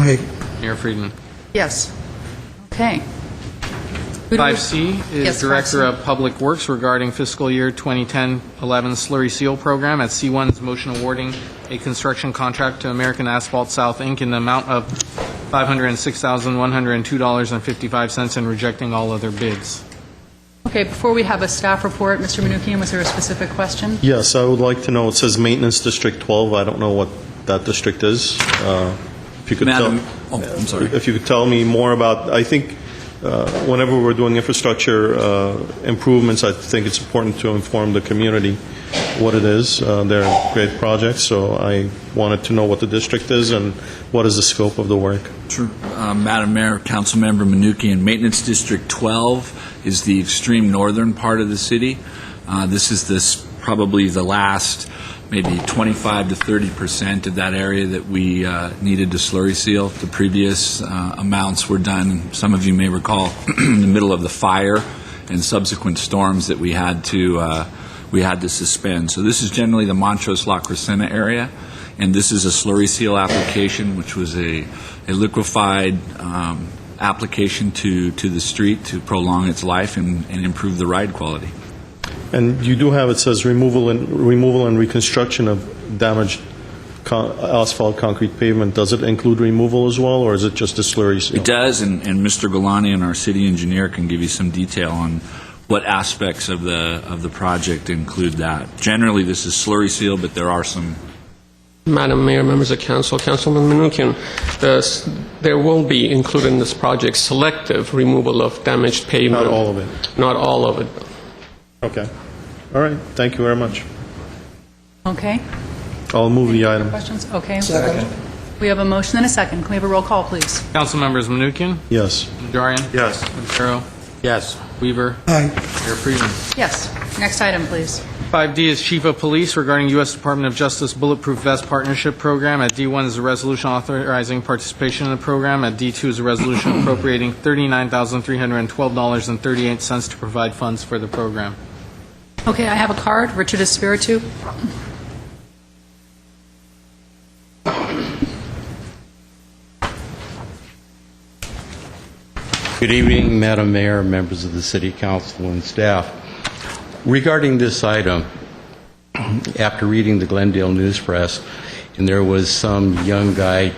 Aye. Mayor Friedman. Yes. Okay. Who do we- 5C is Yes, Director 5C. of Public Works regarding fiscal year 2010-11 slurry seal program. At C1 is motion awarding a construction contract to American Asphalt South, Inc. in the amount of $506,102.55 and rejecting all other bids. Okay, before we have a staff report, Mr. Menuchyan, was there a specific question? Yes, I would like to know, it says Maintenance District 12, I don't know what that district is. Uh, If you could tell... Madam- oh, I'm sorry. If you could tell me more about, I think, uh, whenever we're doing infrastructure uh, improvements, I think it's important to inform the community what it is. Uh, They're great projects, so I wanted to know what the district is and what is the scope of the work. Sure. Uh, Madam Mayor, Councilmember Manukian, Maintenance District 12 is the extreme northern part of the city. Uh, This is this, probably the last, maybe 25 to 30 percent of that area that we uh, needed to slurry seal. The previous uh, amounts were done, some of you may recall, in the middle of the fire and subsequent storms that we had to, uh, we had to suspend. So this is generally the Montrose La Crescenta area, and this is a slurry seal application, which was a, a liquefied um, application to, to the street to prolong its life and, and improve the ride quality. And you do have, it says removal and, removal and reconstruction of damaged con- asphalt concrete pavement. Does it include removal as well, or is it just a slurry seal? It does, and, and Mr. Galani and our city engineer can give you some detail on what aspects of the, of the project include that. Generally, this is slurry seal, but there are some Madam Mayor, members of council, Councilman Menuchyan, the s- there will be included in this project selective removal of damaged pavement. Not all of it. Not all of it. Okay. All right, thank you very much. Okay. I'll move the item. Questions? Okay. We have a motion and a second. Can we have a roll call, please? Councilmembers Menuchyan, Yes. Najarian. Yes. Quintero. Yes. Weaver. Aye. Mayor Friedman. Yes. Next item, please. 5D is Chief of Police regarding U.S. Department of Justice Bulletproof Vest Partnership Program. At D1 is a resolution authorizing participation in the program. At D2 is a resolution appropriating $39,312.38 to provide funds for the program. Okay, I have a card. Richard Espiritu. Good evening, Madam Mayor, members of the City Council, and staff. Regarding this item, after reading the Glendale News Press, and there was some young guy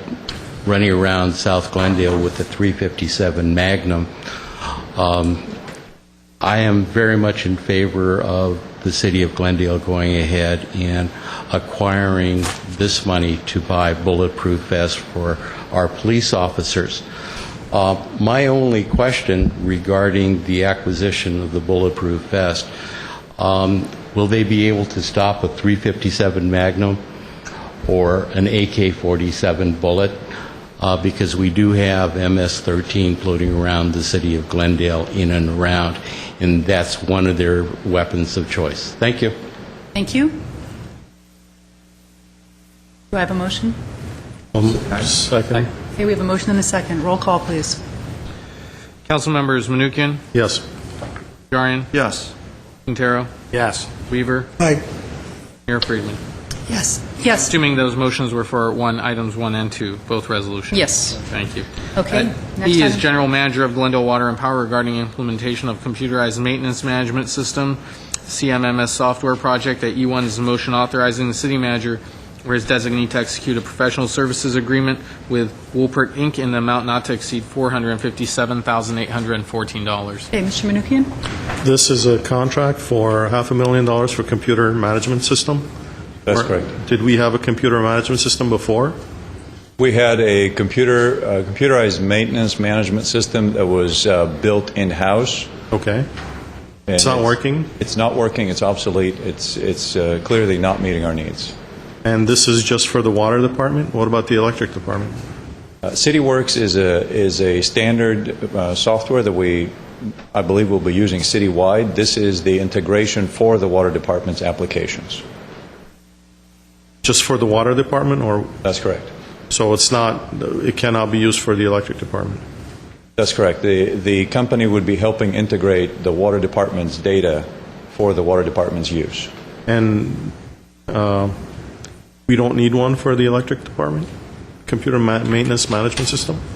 running around South Glendale with a 357 Magnum, um, I am very much in favor of the City of Glendale going ahead and acquiring this money to buy bulletproof vests for our police officers. Uh, My only question regarding the acquisition of the bulletproof vest, um, will they be able to stop a 357 Magnum or an AK-47 bullet? uh, because we do have MS-13 floating around the city of Glendale in and around, and that's one of their weapons of choice. Thank you. Thank you. Do I have a motion? Um, Second. Okay, we have a motion and a second. Roll call, please. Councilmembers Menuchyan, Yes. Najarian, Yes. Quintero, Yes. Weaver, Aye. Mayor Friedman. Yes. Yes. Assuming those motions were for one, items one and two, both resolutions. Yes. Thank you. Okay, Uh, next E is item. General Manager of Glendale Water and Power regarding implementation of computerized maintenance management system, CMMS software project. At E1 is a motion authorizing the city manager or his designee to execute a professional services agreement with Woolpert Inc. in the amount not to exceed $457,814. Okay, Mr. Menuchyan? This is a contract for half a million dollars for computer management system? That's Or- correct. Did we have a computer management system before? We had a computer, uh, computerized maintenance management system that was uh, built in-house. Okay. and It's not working? It's not working, it's obsolete, it's, it's uh, clearly not meeting our needs. And this is just for the water department? What about the electric department? Uh, CityWorks is a, is a standard uh, software that we, I believe, will be using citywide. This is the integration for the water department's applications. Just for the water department, or, That's correct. so it's not, it cannot be used for the electric department? That's correct. The, the company would be helping integrate the water department's data for the water department's use. And uh, we don't need one for the electric department? computer ma- maintenance management system?